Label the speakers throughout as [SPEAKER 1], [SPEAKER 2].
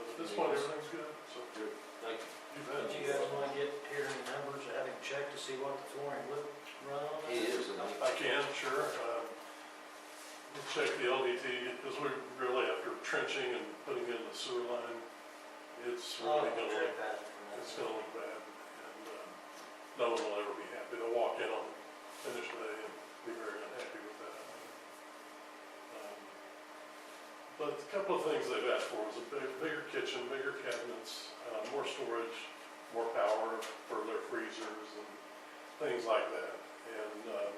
[SPEAKER 1] At this point, everything's good, so.
[SPEAKER 2] Good. Thank you.
[SPEAKER 1] You
[SPEAKER 3] But
[SPEAKER 1] bet.
[SPEAKER 3] you guys wanna get here any numbers, or have him check to see what the flooring would run on?
[SPEAKER 2] He is, and
[SPEAKER 1] I
[SPEAKER 2] I'm,
[SPEAKER 1] can, sure. uh, we'll Check the LDT, because we're really after trenching and putting in the sewer line. It's
[SPEAKER 3] Oh,
[SPEAKER 1] really gonna look,
[SPEAKER 3] check that.
[SPEAKER 1] it's gonna look bad, and um, no one will ever be happy. They'll walk in on finish day and be very unhappy with that. Um, But a couple of things they've asked for is a big- bigger kitchen, bigger cabinets, uh, more storage, more power for their freezers and things like that. And um,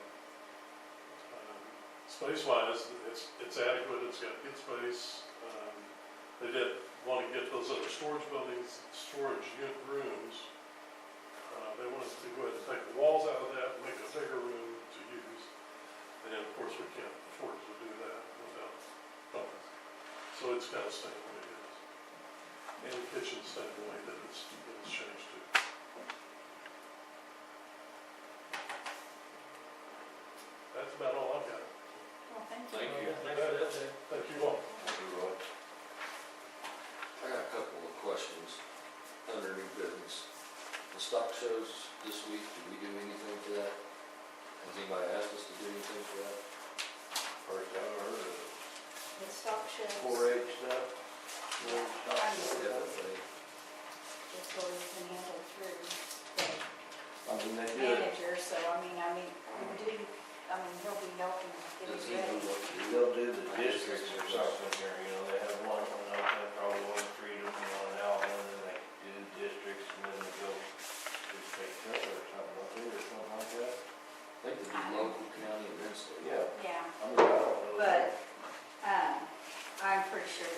[SPEAKER 1] um, space-wise, it's, it's adequate, it's got good space. Um, They did want to get those other storage buildings, storage unit rooms. Uh, They wanted to go ahead and take the walls out of that, make a bigger room to use. And then, of course, we can't afford to do that without funds. So it's kind of staying the way it is. And the kitchen's staying the way that it's, that it's changed to. That's about all I've got.
[SPEAKER 4] Well, thank you.
[SPEAKER 2] thank you.
[SPEAKER 3] Thanks for that, Jay.
[SPEAKER 1] Thank you all.
[SPEAKER 2] Thank you, Roy. I got a couple of questions under new business. The stock shows this week, did we do anything for that? Has anybody asked us to do anything for that? Or is that our
[SPEAKER 4] The stock shows,
[SPEAKER 2] four H stuff? Four H stock show, FFA.
[SPEAKER 4] it's always been handled through the
[SPEAKER 2] I mean, they do it.
[SPEAKER 4] manager, so I mean, I mean, we do, I mean, he'll be helping get
[SPEAKER 2] Does he
[SPEAKER 4] it
[SPEAKER 2] know
[SPEAKER 4] ready.
[SPEAKER 2] what to do?
[SPEAKER 5] They'll do the districts or something here, you know, they have one, one up there, probably one in Freedom, and one in Alvin, and they do the districts, and then they go to state treasurer or something, up there, or something like that.
[SPEAKER 2] I think they do local, county, and then state.
[SPEAKER 5] Yeah,
[SPEAKER 4] Yeah,
[SPEAKER 5] I mean, I don't know.
[SPEAKER 4] but, um, I'm pretty sure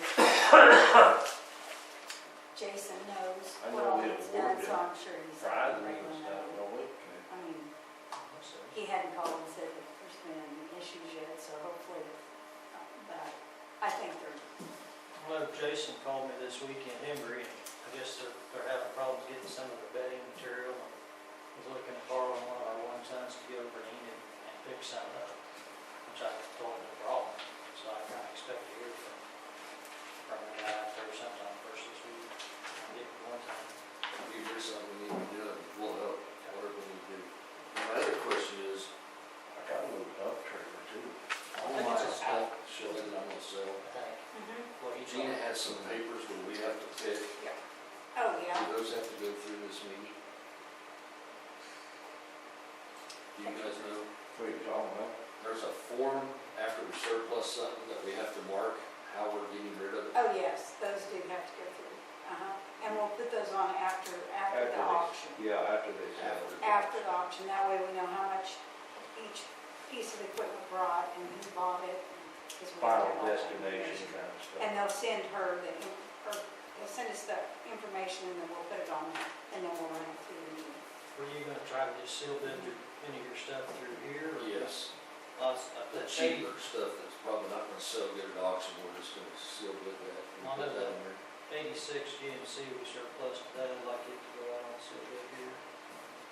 [SPEAKER 4] Jason knows
[SPEAKER 5] I know
[SPEAKER 4] what all
[SPEAKER 5] we
[SPEAKER 4] he's done,
[SPEAKER 5] awarded
[SPEAKER 4] so I'm sure he's.
[SPEAKER 5] Friday,
[SPEAKER 4] regular
[SPEAKER 5] and stuff,
[SPEAKER 4] knows.
[SPEAKER 5] don't we?
[SPEAKER 4] I mean, he hadn't called and said that there's been issues yet, so hopefully, uh, but I think they're,
[SPEAKER 3] Well, Jason called me this weekend, Embry, and I guess they're, they're having problems getting some of the bedding material. and Was looking to borrow one of our one tons to get over to Enid and pick some up, which I told him no problem. So I kind of expect to hear from, from the guy out there sometime first this week, and get one ton.
[SPEAKER 2] If you hear something we need to do, it, we'll help, whatever we need to do. My other question is,
[SPEAKER 5] I got a little dump trailer too.
[SPEAKER 2] all
[SPEAKER 3] think
[SPEAKER 2] my
[SPEAKER 3] it's a-
[SPEAKER 2] stock shows that I'm gonna sell,
[SPEAKER 3] I think, what he told
[SPEAKER 2] Gina
[SPEAKER 3] me.
[SPEAKER 2] has some papers that we have to pick,
[SPEAKER 4] oh, yeah.
[SPEAKER 2] do those have to go through this meeting? Do you guys know,
[SPEAKER 5] What are you talking about?
[SPEAKER 2] there's a form after we surplus something that we have to mark how we're getting rid of it.
[SPEAKER 4] Oh, yes, those do have to go through, uh-huh, and we'll put those on after, after
[SPEAKER 5] After
[SPEAKER 4] the
[SPEAKER 5] they-
[SPEAKER 4] auction.
[SPEAKER 5] Yeah, after they sell it.
[SPEAKER 4] After the auction, that way we know how much each piece of equipment brought and who bought it. and- 'cause we have to
[SPEAKER 5] Final
[SPEAKER 4] have all that
[SPEAKER 5] destination
[SPEAKER 4] information.
[SPEAKER 5] kind of
[SPEAKER 4] And
[SPEAKER 5] stuff.
[SPEAKER 4] they'll send her the, in- or they'll send us the information and then we'll put it on, there, and then we'll run it through. the meeting.
[SPEAKER 3] Were you gonna try to just seal bid your, any of your stuff through here? or-
[SPEAKER 2] Yes,
[SPEAKER 3] Lots of
[SPEAKER 2] the
[SPEAKER 3] that shady
[SPEAKER 2] cheaper stuff that's probably not gonna sell good at auction, we're just gonna seal bid that and
[SPEAKER 3] Well,
[SPEAKER 2] put
[SPEAKER 3] there's
[SPEAKER 2] that
[SPEAKER 3] a-
[SPEAKER 2] in there.
[SPEAKER 3] Eighty-six GMC was surplus today, I'd like it to go out on sale bid here.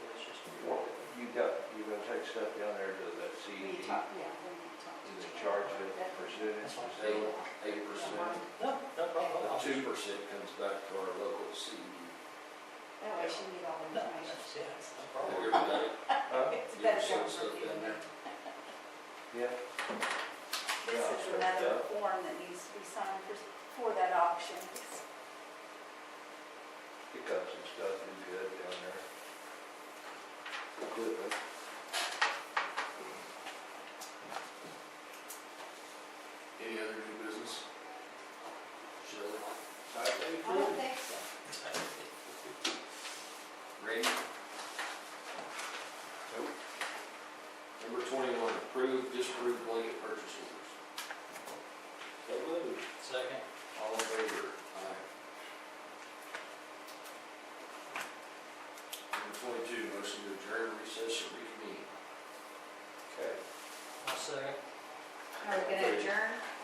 [SPEAKER 3] But it's just.
[SPEAKER 5] Well, You got, you're gonna take stuff down there to that E
[SPEAKER 4] We
[SPEAKER 5] CED,
[SPEAKER 4] talk, yeah, we need to talk.
[SPEAKER 5] do
[SPEAKER 4] to
[SPEAKER 5] they
[SPEAKER 4] Jan.
[SPEAKER 5] charge it
[SPEAKER 4] That-
[SPEAKER 5] percentage to
[SPEAKER 4] Yeah.
[SPEAKER 5] sell it?
[SPEAKER 2] Eight percent,
[SPEAKER 3] No, no problem. I'll
[SPEAKER 2] two
[SPEAKER 3] just-
[SPEAKER 2] percent comes back to our local E CED.
[SPEAKER 4] That way she can get all the
[SPEAKER 3] No,
[SPEAKER 4] information.
[SPEAKER 3] that's- yeah, that's no
[SPEAKER 2] Have
[SPEAKER 3] problem.
[SPEAKER 2] you ever done it?
[SPEAKER 5] Huh?
[SPEAKER 4] It's
[SPEAKER 2] You
[SPEAKER 4] better
[SPEAKER 2] ever seen
[SPEAKER 4] government
[SPEAKER 2] stuff down
[SPEAKER 4] than
[SPEAKER 2] there?
[SPEAKER 5] Yeah.
[SPEAKER 4] This
[SPEAKER 5] Yeah,
[SPEAKER 4] is
[SPEAKER 5] sure,
[SPEAKER 4] another
[SPEAKER 5] yeah.
[SPEAKER 4] form that needs to be signed for, for that auction.
[SPEAKER 5] pickups and stuff do good down there. Equipment.
[SPEAKER 2] Any other new business? Shelley?
[SPEAKER 4] I don't think so.
[SPEAKER 2] Randy? Nope. Number twenty-one, approve, disapprove blanket purchase orders. So moved.
[SPEAKER 3] Second,
[SPEAKER 2] All in favor? Aye. Number twenty-two, motion to adjourn, recess, and reconvene.
[SPEAKER 5] Okay.
[SPEAKER 3] I'll second.
[SPEAKER 4] Are we gonna adjourn?